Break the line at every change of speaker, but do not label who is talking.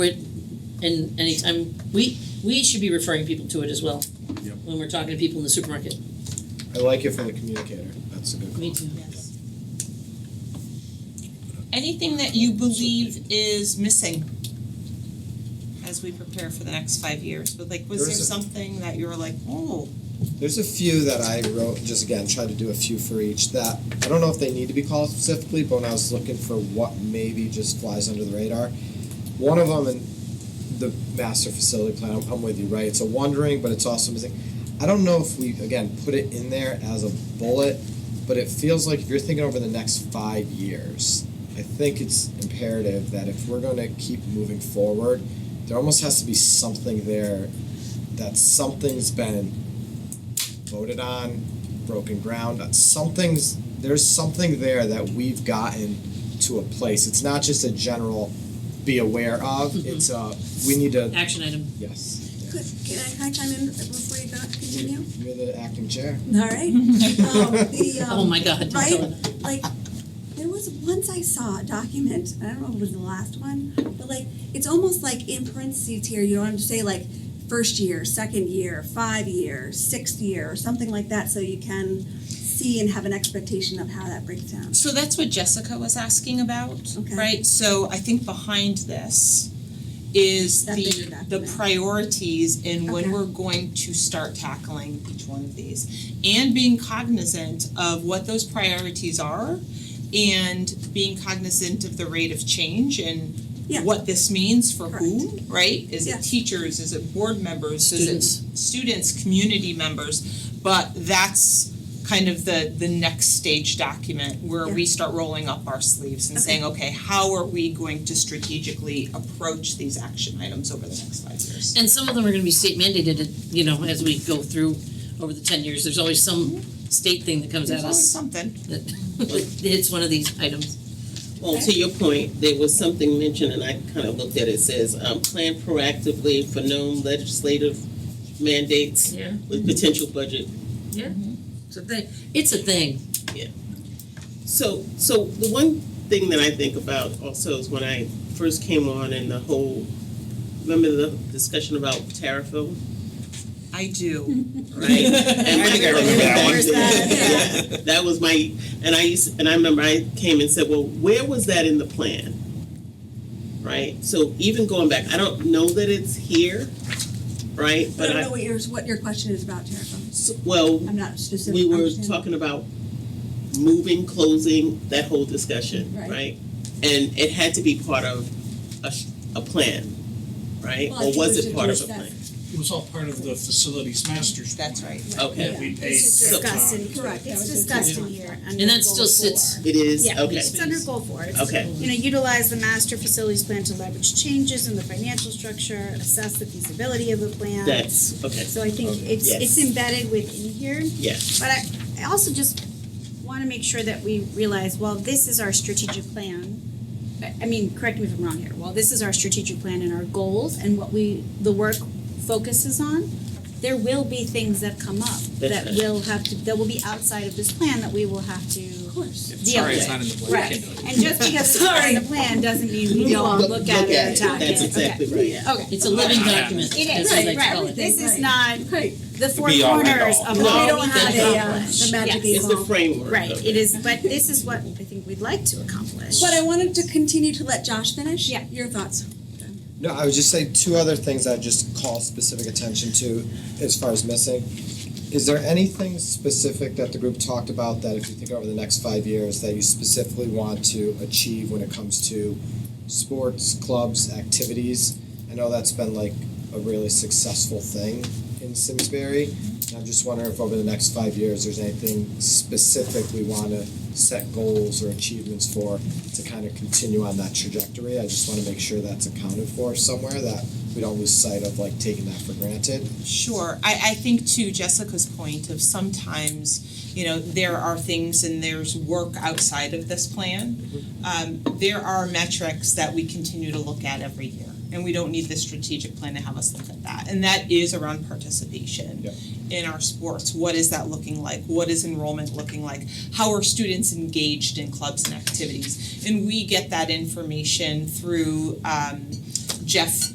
and anytime, we, we should be referring people to it as well.
Yep.
When we're talking to people in the supermarket.
I like it for the communicator, that's a good call.
too.
Yes. Anything that you believe is missing as we prepare for the next five years, but like, was
There
there
is a-
something that you were like, oh,
There's a few that I wrote, just again, tried to do a few for each that, I don't know if they need to be called specifically, but when I was looking for what maybe just flies under the radar, one of them, and the master facility plan, I'm- I'm with you, right? It's a wondering, but it's also missing. I don't know if we, again, put it in there as a bullet, but it feels like if you're thinking over the next five years, I think it's imperative that if we're gonna keep moving forward, there almost has to be something there that something's been voted on, broken ground, that something's, there's something there that we've gotten to a place. It's not just a general be aware of, it's a, we need to,
Action item.
yes. yeah.
Good, can I, can I chime in before you go, continue?
You're the acting chair.
All right. Um, the,
Oh
um,
my god, don't
right?
tell her.
like, there was, once I saw a document, I don't know if it was the last one, but like, it's almost like in parentheses here, you don't have to say like, first year, second year, five year, sixth year, or something like that, so you can see and have an expectation of how that breaks down.
So that's what Jessica was asking about,
Okay.
right? So I think behind this is
That bigger
the the
document.
priorities in when
Okay.
we're going to start tackling each one of these. And being cognizant of what those priorities are and being cognizant of the rate of change and
Yeah.
what this means for
Correct.
whom, right? Is it
Yes.
teachers, is it board members, is it
Students.
students, community members? But that's kind of the the next stage document where we start rolling up our sleeves and
Okay.
saying, okay, how are we going to strategically approach these action items over the next five years?
And some of them are gonna be state mandated, you know, as we go through over the ten years, there's always some state thing that comes
There's
at
always
us
something.
that hits one of these items.
Well, to your point, there was something mentioned, and I kind of looked at it, it says, um, plan proactively for known legislative mandates
Yeah.
with potential budget.
It's a thing, it's a thing.
So, so the one thing that I think about also is when I first came on and the whole, remember the discussion about Tarryville,
I do.
right? And
I think I remember
that one.
Yeah. That was my, and I used, and I remember I came and said, well, where was that in the plan? Right, so even going back, I don't know that it's here, right,
I
but
don't know
I,
what yours, what your question is about, Tara,
so- well,
I'm not specific.
we were
understanding.
talking about moving, closing, that whole discussion,
Right.
right? And it had to be part of a, s- a plan, right,
Well, I
or
think
was
we
it
should
part of a
just
plan?
It was all part of the facilities master's plan.
That's right.
Okay,
That we paid.
It's
So-
discussed in,
Correct, that
it's
was a
discussed in
good
here under goal four.
And that still sits-
it is,
Yeah,
okay,
it's under goal four. It's,
Okay.
You know, utilize the master facilities plan to leverage changes in the financial structure, assess the feasibility of the plan.
that's, okay,
So I think it's,
Yes.
it's embedded within here.
yeah,
But I, I also just wanna make sure that we realize, while this is our strategic plan, I, I mean, correct me if I'm wrong here, while this is our strategic plan and our goals and what we, the work focuses on, there will be things that come up that
right.
will have to, that will be outside of this plan that we will have to
Of course.
deal with.
in the plan.
Right, and just because it's not in the plan doesn't mean we
Don't
don't
look-
look at
look at it.
it, attack it, okay.
That's exactly right.
Okay.
It's a living document,
It
that's
is,
what
right,
they call
right,
it.
this is
Right.
not
Right.
the four
be all and
corners
all.
of
No,
what
we
we
don't
need
have
to
a, uh,
accomplish.
the magic
Yes.
it's the
Well,
framework
Right,
of
it is, but this is what I think we'd like to accomplish.
But I wanted to continue to let Josh finish.
Yeah.
Your thoughts.
No, I would just say two other things I'd just call specific attention to as far as missing. Is there anything specific that the group talked about that if you think over the next five years that you specifically want to achieve when it comes to sports, clubs, activities? I know that's been like a really successful thing in Simsbury. And I'm just wondering if over the next five years there's anything specific we want to set goals or achievements for to kind of continue on that trajectory. I just want to make sure that's accounted for somewhere that we don't lose sight of like taking that for granted.
Sure, I I think to Jessica's point of sometimes, you know, there are things and there's work outside of this plan. Um there are metrics that we continue to look at every year and we don't need the strategic plan to have us look at that. And that is around participation
Yep.
in our sports. What is that looking like? What is enrollment looking like? How are students engaged in clubs and activities? And we get that information through um Jeff